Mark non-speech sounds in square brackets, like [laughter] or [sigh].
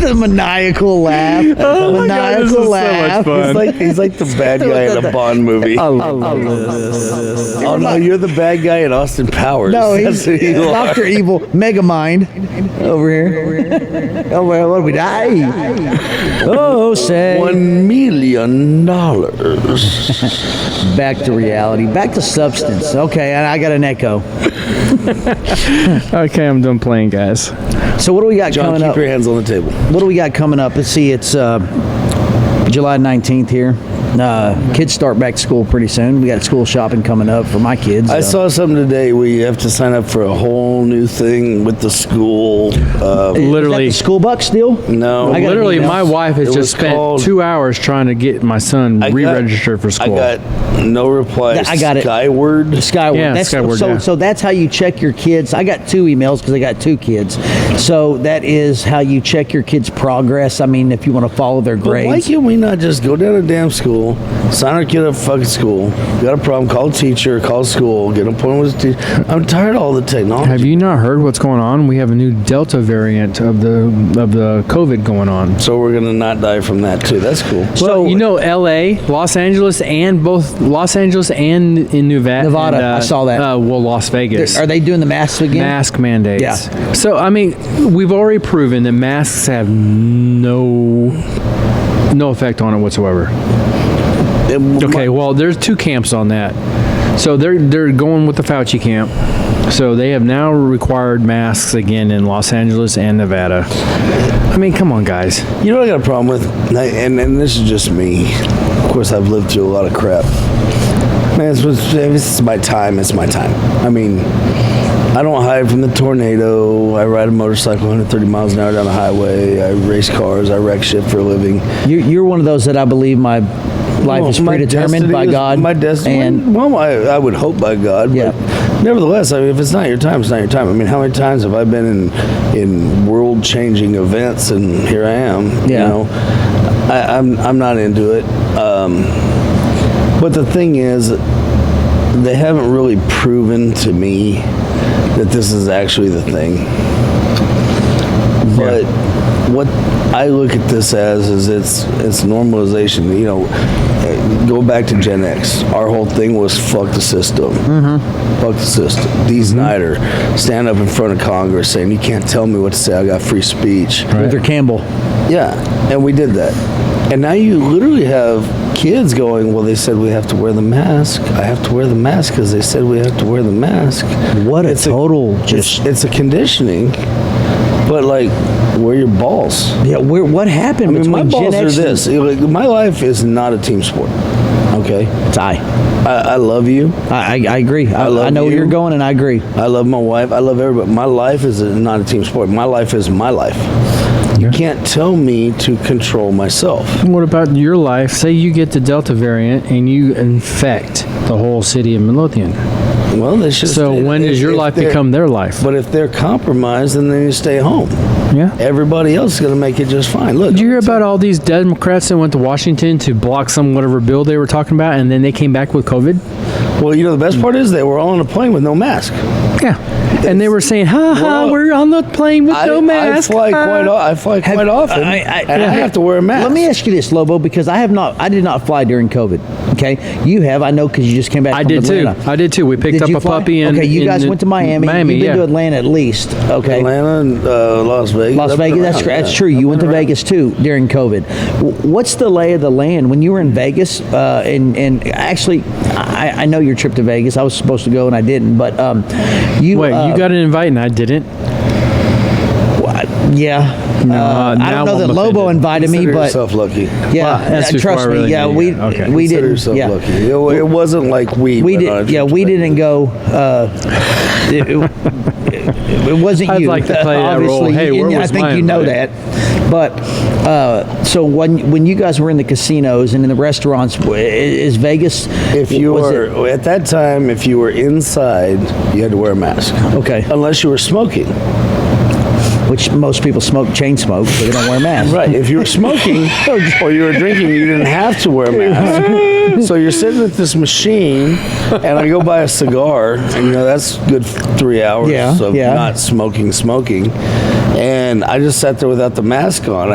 [laughs] the maniacal laugh. Oh my God, this is so maniacal much laugh. fun. He's like he's like the [laughs] bad guy in a Bond movie. I love Oh no, you're the bad guy in Austin Powers. no, That's he's who you are. Doctor Evil, Mega Mind, over here. Oh, well, what do we die? Oh, say. One million dollars. Back to reality, back to substance. Okay, and I got an echo. Okay, I'm done playing, guys. So what do we got John, coming keep up? your hands on the table. What do we got coming up? Let's see. It's uh, July 19th here. Uh, kids start back to school pretty soon. We got school shopping coming up for my kids. I Uh, saw something today where you have to sign up for a whole new thing with the school. Uh, is that Literally. the school buck still. no, I got an Literally, email. my wife has It just was spent called- two hours trying to get my son I got- re-registered for school. I got no reply. I got it. Skyward. Skyward. Yeah, that's, Skyward, so, yeah. so that's how you check your kids. I got two emails because I got two kids. So that is how you check your kids' progress. I mean, if you want to follow their But why grades. can't we not just go down to damn school, sign our kid up for fucking school, got a problem, call a teacher, call school, get an appointment with the teacher. I'm tired of all the technology. Have you not heard what's going on? We have a new Delta variant of the of the COVID going on. so we're gonna not die from that too. That's cool. So you know, L.A., Los Angeles, and both Los Angeles and in Nevada. Nevada, and, I saw that. Uh, well, Las Vegas. Are they doing the masks again? mask mandates? Yeah. So I mean, we've already proven that masks have no no effect on it whatsoever. It- Okay, well, there's two camps on that. So they're they're going with the Fauci camp. So they have now required masks again in Los Angeles and Nevada. I mean, come on, guys. You know what I got a problem with, and, I- and and this is just me. Of course, I've lived through a lot of crap. Man, it's, it's, this is my time. It's my time. I mean, I don't hide from the tornado. I ride a motorcycle 130 miles an hour down the highway. I race cars. I wreck shit for a living. You, you're one of those that I believe my life Well, is my predetermined destiny by is- God. My destiny. And well, I, I would hope by God. Yeah. But nevertheless, I mean, if it's not your time, it's not your time. I mean, how many times have I been in in world changing events, and here I am. Yeah. You know, I, I'm I'm not into it. Um, but the thing is, they haven't really proven to me that this is actually the thing. But what I look at this as is it's it's normalization. You know, eh, go back to Gen X. Our whole thing was fuck the system. Fuck the system. D. Snyder stand up in front of Congress saying you can't tell me what to say. I got free speech. Luther Campbell. Yeah, and we did that. And now you literally have kids going, well, they said we have to wear the mask. I have to wear the mask because they said we have to wear the mask. What a It's a- total It's, just. it's a conditioning, but like, wear your balls. Yeah, where, what happened I mean, my between Gen balls are X and- this. Like, my life is not a team sport. Okay, It's I. I, I love you. I, I, I agree. I, I, love know where you. you're going, and I agree. I love my wife. I love everybody. My life is a, not a team sport. My life is my life. You can't tell me to control myself. What about your life? Say you get the Delta variant and you infect the whole city of Midlothian. Well, they should. So when does your life become their life? But if they're compromised, then they need to stay home. Yeah. Everybody else is going to make it just fine. Look, Did you hear about all these Democrats that went to Washington to block some whatever bill they were talking about, and then they came back with COVID? well, you know the best part is they were all on a plane with no mask. Yeah. And they were saying, "Ha ha, Well, we're on the plane with I, no mask." I fly ha." quite. o- I fly Have- quite often, I- I- and I have to wear a mask. Let me ask you this, Lobo, because I have not, I did not fly during COVID. Okay, you have, I know, because you just came back. I from did too. Atlanta. I did too. We picked Did up you a fly? puppy and okay, you guys went to Miami. Miami, You've been yeah. to Atlanta at least. Okay, Atlanta, and, uh, Las Vegas, Las I've been Vegas. That's around, cr- that's yeah. true. You went to Vegas too during COVID. W- What's the lay of the land when you were in Vegas? Uh, and and actually, I, I know your trip to Vegas. I was supposed to go and I didn't. But um, you Wait, uh, you got an invite and I didn't. yeah. I uh, now don't know I'm that Lobo offended. invited me, Consider but yourself lucky. yeah, Well, that's uh, before trust I really me. Yeah, knew we you. Okay. we Consider didn't. yourself Yeah. lucky. It, wa- it wasn't like we. We went on a did, trip yeah. to We Vegas. didn't go. Uh, it, it- it wasn't I'd you. Uh, like to play that role. obviously, Hey, and where I was think my you know invite? that. But uh, so when when you guys were in the casinos and in the restaurants, w- i- is Vegas? If you was were it- at that time, if you were inside, you had to wear a mask, okay, unless you were smoking. which most people smoke chain smoke, so they don't wear masks. Right. If you were [laughs] smoking Oh, or you were drinking, you didn't have to wear a mask. So you're sitting at this machine, and I go buy a cigar, and you know that's good f- three hours Yeah, of yeah. not smoking, smoking, and I just sat there without the mask on.